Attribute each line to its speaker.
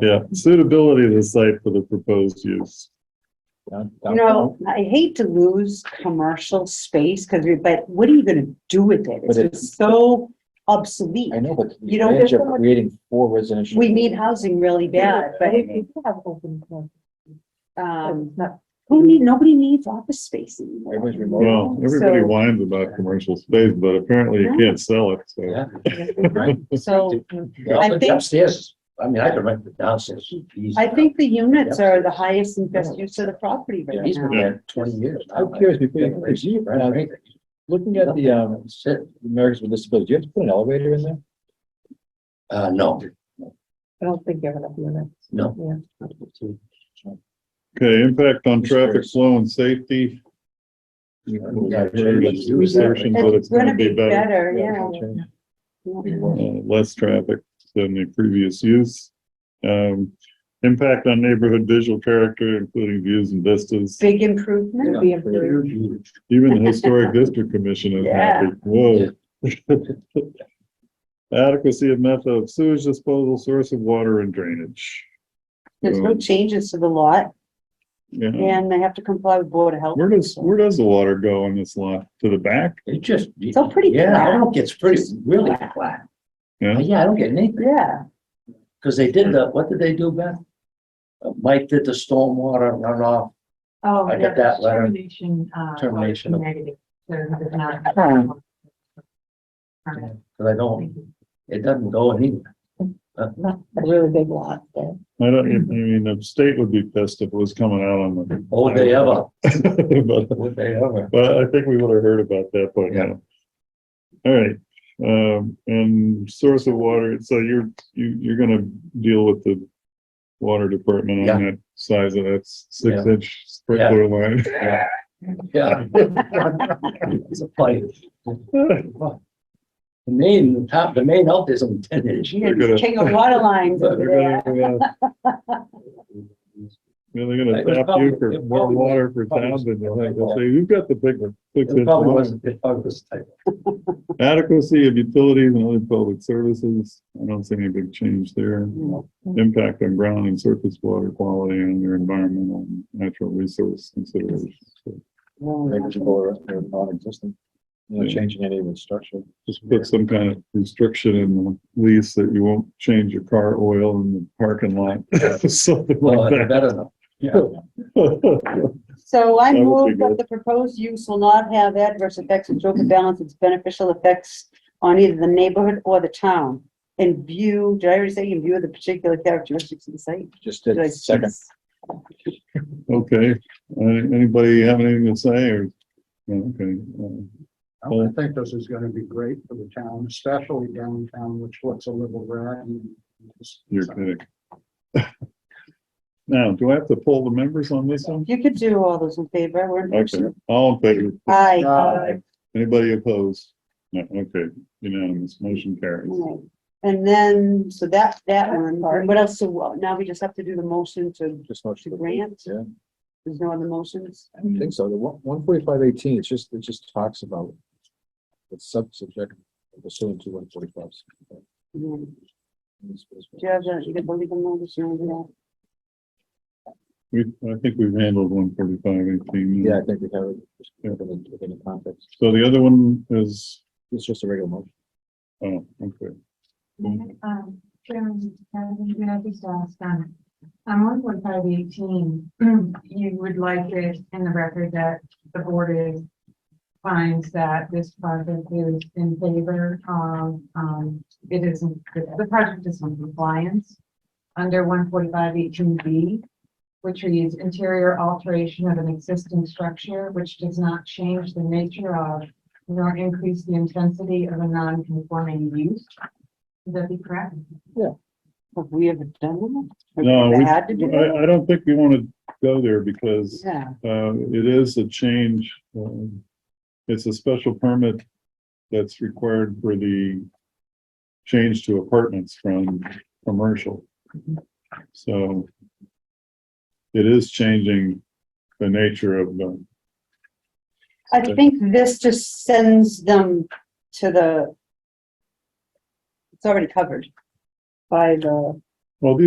Speaker 1: Yeah, suitability of the site for the proposed use.
Speaker 2: You know, I hate to lose commercial space because, but what are you going to do with it? It's
Speaker 3: But it-
Speaker 2: just so obsolete.
Speaker 3: I know, but
Speaker 2: You
Speaker 3: the
Speaker 2: don't
Speaker 3: advantage
Speaker 2: get
Speaker 3: of
Speaker 2: so much-
Speaker 3: creating four residential.
Speaker 2: We need housing really bad, but
Speaker 4: We do have open. floor, but
Speaker 2: um,
Speaker 4: it's not-
Speaker 2: who need, nobody needs office space anymore.
Speaker 3: Everyone's remote.
Speaker 1: Well, everybody
Speaker 2: Oh, So-
Speaker 1: whines about commercial space, but apparently you can't sell it, so.
Speaker 5: Yeah.
Speaker 3: Right?
Speaker 2: So
Speaker 5: Yeah,
Speaker 2: I
Speaker 5: but
Speaker 2: think-
Speaker 5: Upstairs, I mean, I could rent it downstairs. easy.
Speaker 2: I think the units are the highest and best use of the property
Speaker 3: Yeah,
Speaker 2: right
Speaker 3: he's
Speaker 2: now.
Speaker 3: been-
Speaker 5: Yeah, Twenty years.
Speaker 3: I'm curious, before you
Speaker 5: you
Speaker 3: proceed, uh, looking at the, um, Americans with Disabilities, do you have to put an elevator in there?
Speaker 5: Uh, no,
Speaker 4: I don't think you have enough units.
Speaker 5: no.
Speaker 4: Yeah.
Speaker 1: Okay, impact on traffic flow and safety. Assertions that it's
Speaker 2: It's
Speaker 1: gonna be better,
Speaker 2: better, yeah.
Speaker 1: uh, less traffic than the previous use. Um, impact on neighborhood visual character, including views and vistas.
Speaker 2: Big improvement.
Speaker 4: Be improved.
Speaker 1: Even the historic district commission is happy. Whoa. Adequacy of method of sewage disposal, source of water and drainage.
Speaker 2: There's no
Speaker 1: Um,
Speaker 2: changes to the lot
Speaker 1: Yeah.
Speaker 2: and they have to comply with Board of Health.
Speaker 1: Where does, where does the water go on this lot? To the back?
Speaker 5: It just. It's
Speaker 2: all pretty
Speaker 5: Yeah, I don't
Speaker 2: flat.
Speaker 5: get, it's pretty, really flat. Uh,
Speaker 1: Yeah.
Speaker 5: Yeah, I don't get anything,
Speaker 2: Yeah,
Speaker 5: because they did the, what did they do, Beth? Uh, Mike did the stormwater runoff
Speaker 4: Oh,
Speaker 5: I got that letter.
Speaker 4: Termination. uh,
Speaker 5: Termination.
Speaker 4: Negative. So it's not-
Speaker 2: Hmm.
Speaker 4: Permanent.
Speaker 5: Because I don't, it doesn't go anywhere.
Speaker 4: A really big lot there.
Speaker 1: I don't, I mean, the state would be pissed if it was coming out on the.
Speaker 5: Oh, would they ever,
Speaker 1: But
Speaker 5: would they ever?
Speaker 1: But I think we would have heard about that by now. All right, um, and source of water, so you're, you, you're gonna deal with the water department on that size of that six
Speaker 5: Yeah.
Speaker 1: inch sprinkler line.
Speaker 5: Yeah. Yeah. It's a fight. The main, the top, the main out is on ten inch.
Speaker 1: They're gonna-
Speaker 2: king of water lines over
Speaker 1: They're
Speaker 2: there.
Speaker 1: gonna, uh, They're gonna
Speaker 5: It was
Speaker 1: tap
Speaker 5: probably-
Speaker 1: you for
Speaker 5: it
Speaker 1: more
Speaker 5: probably was-
Speaker 1: water for
Speaker 5: probably
Speaker 1: town
Speaker 5: was-
Speaker 1: than they'll have to say, you've got the big one. six
Speaker 5: It
Speaker 1: inch
Speaker 5: probably
Speaker 1: line."
Speaker 5: wasn't, it probably was tight.
Speaker 1: Adequacy of utilities and other public services, I don't see any big change there.
Speaker 2: No.
Speaker 1: Impact on ground and surface water quality and their environmental and natural resource considerations. So
Speaker 3: Negligible or or non-existent. Not changing any of the structure.
Speaker 1: Just put some kind of restriction in the lease that you won't change your car oil in the parking lot, something
Speaker 5: Well,
Speaker 1: like
Speaker 5: it's
Speaker 1: that.
Speaker 5: better than.
Speaker 2: So
Speaker 1: That
Speaker 2: I
Speaker 1: would be
Speaker 2: move that
Speaker 1: good.
Speaker 2: the proposed use will not have adverse effects which overbalance its beneficial effects on either the neighborhood or the town. In view, did I already say in view of the particular characteristics of the site?
Speaker 3: Just
Speaker 2: Did I-
Speaker 3: did second.
Speaker 1: Okay, Uh, anybody have anything to say or? no, Okay, Uh,
Speaker 6: I would think this is gonna be great for the town, especially downtown, which looks a little rotten.
Speaker 1: you're kidding. Now, do I have to pull the members on this one?
Speaker 2: You could do all those in favor, we're in
Speaker 1: Okay,
Speaker 2: person.
Speaker 1: all in favor?
Speaker 2: Aye.
Speaker 6: Uh,
Speaker 1: Anybody opposed? No, okay, unanimous, motion carries.
Speaker 2: Alright. And then, so that, that
Speaker 4: That's
Speaker 2: one,
Speaker 4: hard.
Speaker 2: what else, so uh, now we just have to do the motion to,
Speaker 3: Just motion.
Speaker 2: to grant?
Speaker 3: Yeah.
Speaker 2: There's no other motions?
Speaker 3: I don't think so. The one, one forty-five eighteen, it's just, it just talks about the sub-subject pursuant to one forty-five.
Speaker 2: Mm. Do you have that, uh, you can believe in all this, you know,
Speaker 1: We, I think we've handled one forty-five eighteen.
Speaker 3: Yeah, I think we have it just within, within the context.
Speaker 1: So the other one is,
Speaker 3: It's just a regular motion.
Speaker 1: oh, okay,
Speaker 4: Um, Chairman, can I just ask, um, on one point five eighteen, you would like it in the record that the board is finds that this project is in favor of, um, it isn't, the project is in compliance under one forty-five eighteen B, which reads interior alteration of an existing structure which does not change the nature of nor increase the intensity of a non-conforming use. Would that be correct?
Speaker 2: have we ever done that? Have we
Speaker 1: no,
Speaker 2: ever
Speaker 1: we,
Speaker 2: Had to do that?
Speaker 1: I, I don't think we want to go there because,
Speaker 2: Yeah,
Speaker 1: uh, it is a change. um, It's a special permit that's required for the change to apartments from commercial. So it is changing the nature of the
Speaker 2: I think this just sends them to the, it's already covered by the
Speaker 1: Well, these